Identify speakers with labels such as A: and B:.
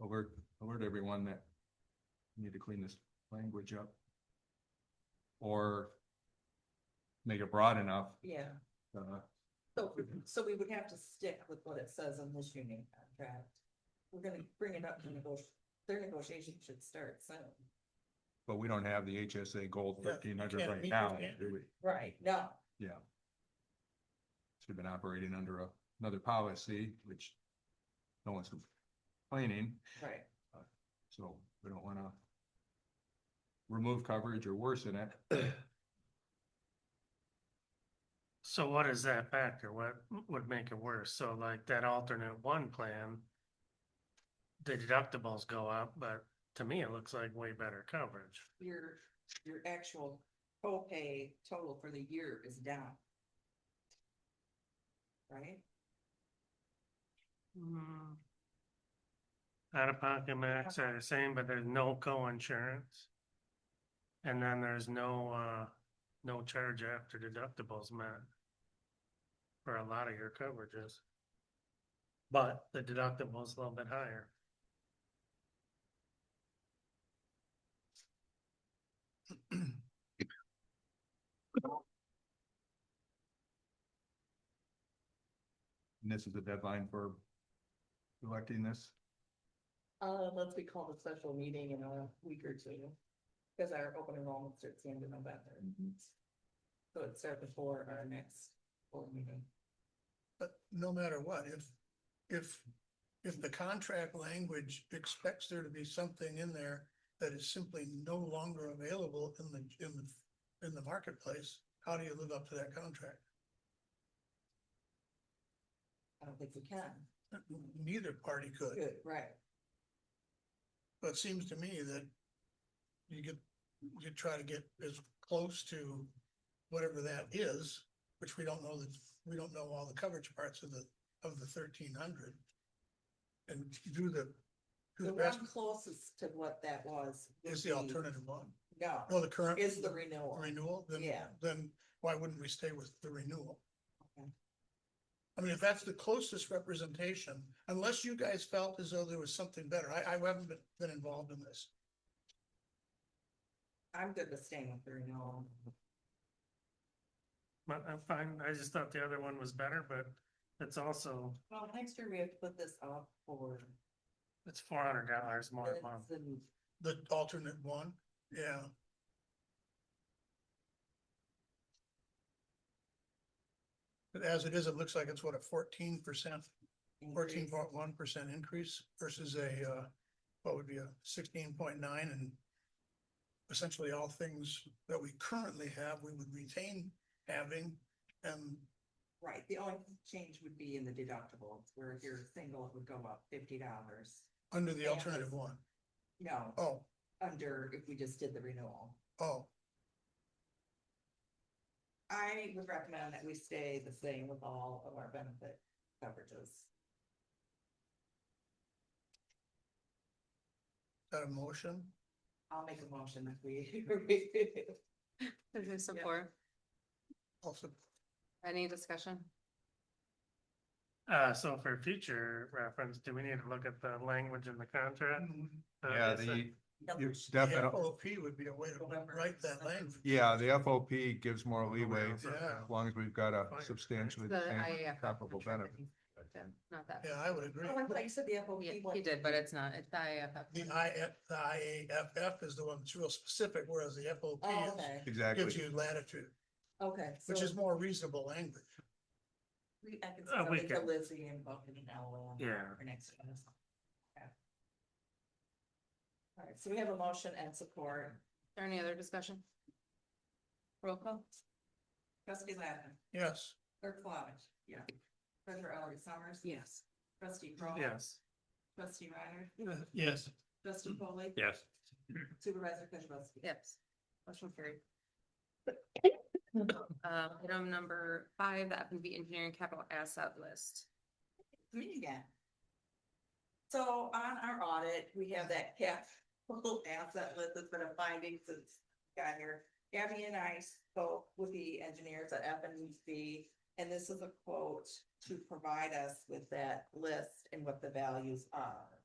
A: alert, alert everyone that we need to clean this language up. Or make it broad enough,
B: Yeah,
A: uh,
B: so, so we would have to stick with what it says in this union contract. We're gonna bring it up to negotiate, their negotiation should start soon.
A: but we don't have the HSA gold
C: Yeah,
A: thirteen hundred
C: can't
A: right
C: meet
A: now,
C: the standard.
A: do we?
B: Right. No,
A: Yeah. Should have been operating under a- another policy, which no one's complaining,
B: right,
A: so we don't wanna remove coverage or worsen it.
C: So what is that factor? What would make it worse? So like that alternate one plan, the deductibles go up, but to me, it looks like way better coverage.
B: your, your actual co-pay total for the year is down. Right? Mm-hmm.
C: Out of pocket max are the same, but there's no co-insurance. And then there's no, uh, no charge after deductibles met. For a lot of your coverages. But the deductible's a little bit higher.
A: And this is the deadline for electing this.
B: Uh, let's be called a special meeting in a week or two, because our open enrollment starts the end of November. So it starts before our next board meeting.
D: But no matter what, if, if, if the contract language expects there to be something in there that is simply no longer available in the, in the, in the marketplace, how do you live up to that contract?
B: I don't think we can.
D: Neither party could,
B: Good, right.
D: but it seems to me that you get, you try to get as close to whatever that is, which we don't know that, we don't know all the coverage parts of the, of the thirteen hundred. And do the, do
B: The
D: the best
B: one closest to what that was. would
D: is the
B: be-
D: alternative one.
B: No,
D: Well, the current.
B: Mm. is the renewal.
D: Renewal, then,
B: Yeah.
D: then why wouldn't we stay with the renewal?
B: Okay.
D: I mean, if that's the closest representation, unless you guys felt as though there was something better, I, I haven't been, been involved in this.
B: I'm good with staying with the renewal.
C: But I'm fine, I just thought the other one was better, but it's also,
B: Well, next year we have to put this up for.
C: it's four hundred dollars more a month.
B: bids and
D: The alternate one, yeah, but as it is, it looks like it's what, a fourteen percent, fourteen
B: increase.
D: point one percent increase versus a, uh, what would be a sixteen point nine and essentially all things that we currently have, we would retain having um, and
B: Right, the only change would be in the deductibles, where if you're single, it would go up fifty dollars.
D: under the
B: Yeah.
D: alternative one.
B: No,
D: Oh,
B: under if we just did the renewal.
D: oh,
B: I would recommend that we stay the same with all of our benefit coverages.
D: that a motion?
B: I'll make a motion that we.
E: Who support?
D: Also,
E: Any discussion?
C: Uh, so for future reference, do we need to look at the language in the contract? Uh,
A: Yeah,
C: is it-
A: the, you
D: the
A: definitely,
D: FOP would be a way to
B: November.
D: write that language.
A: yeah, the FOP gives more leeway, as
D: Yeah.
A: long as we've got a substantially
E: The
A: same
E: IAF
A: comparable benefit.
E: Not that.
D: Yeah, I would agree.
B: Oh, I thought you said the FOP.
E: Yeah,
B: one.
E: he did, but it's not, it's the
D: The
E: IAF.
D: I, the IAFF is the one that's real specific, whereas the FOP
B: Oh,
D: is-
B: okay,
D: gives
A: Exactly.
D: you latitude,
B: okay.
D: which
B: so
D: is more reasonable language.
B: we- I can
C: a
B: send it to
C: weekend.
B: Lizzie and book it in LOM.
C: Yeah.
B: For next. one. Okay. All right, so we have a motion and support.
E: Is there any other discussion? Roll call?
B: Trustee Lappin,
D: Yes,
B: clerk Flavich. Yeah. Treasurer Ellery Summers.
E: Yes.
B: Trustee Crawl.
C: Yes.
B: Trustee Reiner.
D: yes,
B: Trustee Foley,
C: Mm-hmm. Yes.
B: Supervisor Kujabaski.
E: Yes. Motion carried. Um, item number five, the F and B engineering capital asset list.
B: me again. So on our audit, we have that capital asset list that's been a finding since I got here. Gabby and I spoke with the engineers at F and B, and this is a quote to provide us with that list and what the values are.